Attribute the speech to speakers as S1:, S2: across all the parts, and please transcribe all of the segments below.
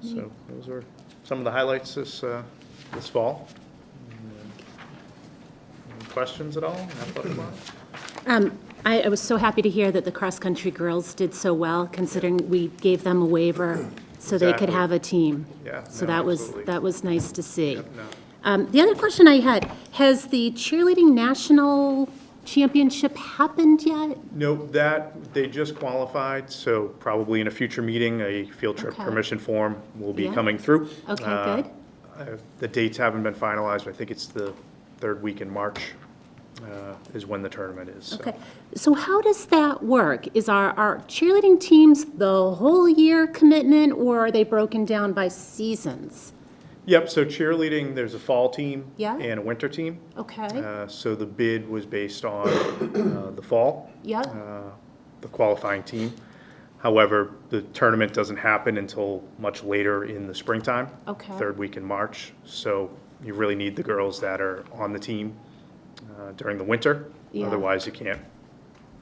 S1: So
S2: Mm-hmm.
S1: those are some of the highlights this, uh, this fall. Any questions at all? Athletic wise?
S2: Um, I, I was so happy to hear that the cross-country girls did so well, considering we gave them a waiver so they could
S1: Exactly.
S2: have a team.
S1: Yeah,
S2: So
S1: no,
S2: that was,
S1: absolutely.
S2: that was nice to see.
S1: No.
S2: Um, the other question I had, has the cheerleading national championship happened yet?
S1: No, that, they just qualified, so probably in a future meeting, a field trip
S2: Okay.
S1: permission form will be
S2: Yeah.
S1: coming through.
S2: Okay,
S1: Uh,
S2: good.
S1: uh, The dates haven't been finalized, but I think it's the third week in March uh, is when the tournament is. so.
S2: Okay, so how does that work? Is our, our cheerleading teams the whole year commitment, or are they broken down by seasons?
S1: Yep, so cheerleading, there's a fall team
S2: Yeah.
S1: and a winter team.
S2: Okay,
S1: Uh, So the bid was based on uh, the fall,
S2: yeah,
S1: uh, the qualifying team. However, the tournament doesn't happen until much later in the springtime.
S2: Okay.
S1: Third week in March. So you really need the girls that are on the team uh, during the winter.
S2: Yeah.
S1: Otherwise, you can't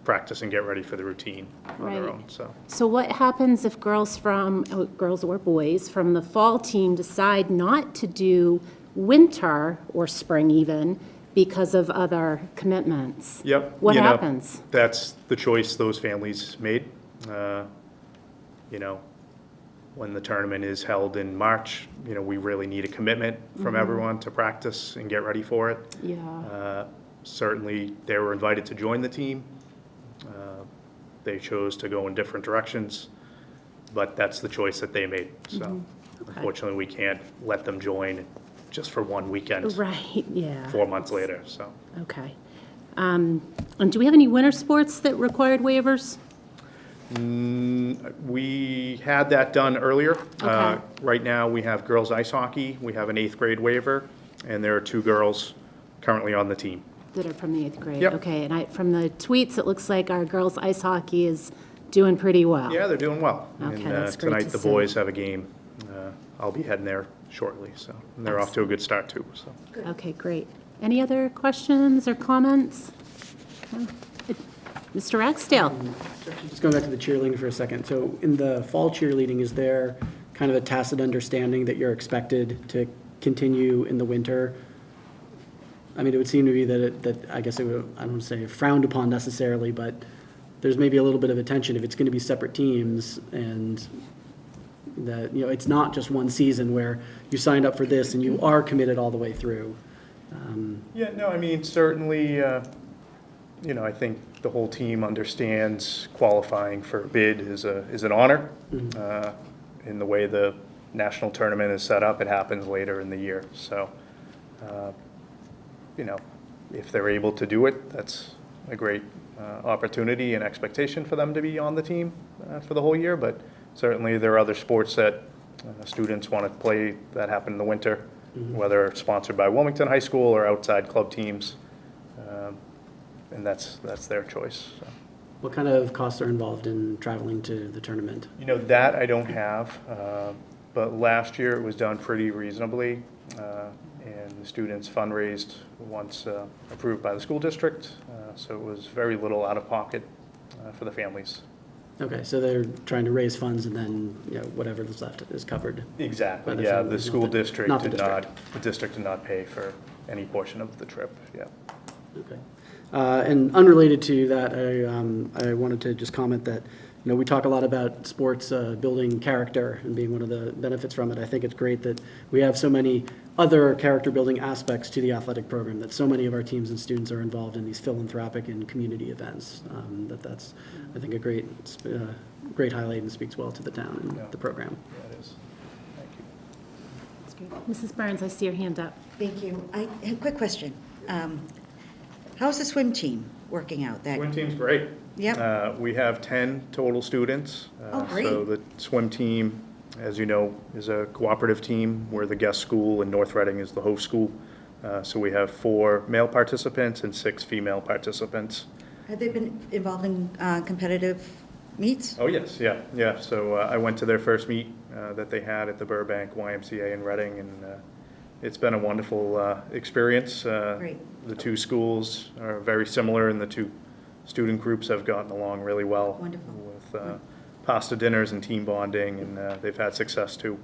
S1: practice and get ready for the routine on their
S2: Right.
S1: own, so.
S2: So what happens if girls from, oh, girls or boys, from the fall team decide not to do winter or spring even because of other commitments?
S1: Yep.
S2: What
S1: you know,
S2: happens?
S1: That's the choice those families made. Uh, You know, when the tournament is held in March, you know, we really need a commitment from
S2: Mm-hmm.
S1: everyone to practice and get ready for it.
S2: Yeah,
S1: Uh, Certainly, they were invited to join the team. Uh, They chose to go in different directions, but that's the choice that they made.
S2: Mm-hmm.
S1: So unfortunately, we can't let them join just for one weekend,
S2: right, yeah,
S1: four months later, so.
S2: okay. Um, And do we have any winter sports that required waivers?
S1: We had that done earlier. Uh,
S2: Okay.
S1: Right now, we have girls ice hockey, we have an eighth grade waiver, and there are two girls currently on the team.
S2: That are from the eighth grade?
S1: Yep.
S2: Okay, and I, from the tweets, it looks like our girls' ice hockey is doing pretty well.
S1: Yeah, they're doing well.
S2: Okay,
S1: And, uh,
S2: that's great to
S1: Tonight, the
S2: see.
S1: boys have a game. Uh, I'll be heading there shortly, so, and they're off to a good start, too, so.
S2: Okay, great. Any other questions or comments? No? Mr. Ragsdale?
S3: Just going back to the cheerleading for a second. So in the fall cheerleading, is there kind of a tacit understanding that you're expected to continue in the winter? I mean, it would seem to be that, it- that, I guess it would, I don't wanna say frowned upon necessarily, but there's maybe a little bit of attention if it's gonna be separate teams and that, you know, it's not just one season where you signed up for this and you are committed all the way through.
S1: Yeah, no, I mean, certainly, uh, you know, I think the whole team understands qualifying for a bid is a, is an honor.
S2: Mm-hmm.
S1: Uh, In the way the national tournament is set up, it happens later in the year, so, uh, you know, if they're able to do it, that's a great uh, opportunity and expectation for them to be on the team uh, for the whole year, but certainly there are other sports that uh, students want to play that happen in the winter, whether sponsored by Wilmington High School or outside club teams, Um, and that's, that's their choice. so.
S3: What kind of costs are involved in traveling to the tournament?
S1: You know, that I don't have, uh, but last year it was done pretty reasonably, uh, and the students fundraised once uh, approved by the school district, uh, so it was very little out of pocket uh, for the families.
S3: Okay, so they're trying to raise funds and then, you know, whatever's left is covered. By
S1: Exactly,
S3: the
S1: yeah, the
S3: families,
S1: school
S3: not the-
S1: district
S3: not the
S1: did not, the district did not pay for any portion of the trip, yeah.
S3: Okay. Uh, And unrelated to that, I, um, I wanted to just comment that, you know, we talk a lot about sports uh, building character and being one of the benefits from it. I think it's great that we have so many other character-building aspects to the athletic program, that so many of our teams and students are involved in these philanthropic and community events. Um, That that's, I think, a great, sp- uh, great highlight and speaks well to the town
S1: Yeah.
S3: and the program.
S1: That is, thank you.
S2: Mrs. Burns, I see your hand up.
S4: Thank you. I, a quick question. Um, How's the swim team working out? That
S1: Swim team's great.
S4: Yep.
S1: Uh, We have 10 total students.
S4: Oh,
S1: Uh, So the swim team, as you know, is a cooperative team. We're the guest school, and North Reading is the host school. Uh, So we have four male participants and six female participants.
S4: Have they been involved in uh, competitive meets?
S1: Oh, yes, yeah, yeah. So uh, I went to their first meet uh, that they had at the Burbank YMCA in Reading, and uh, it's been a wonderful uh, experience. Uh,
S4: Great.
S1: The two schools are very similar, and the two student groups have gotten along really well.
S4: Wonderful.
S1: With uh, pasta dinners and team bonding, and uh, they've had success, too,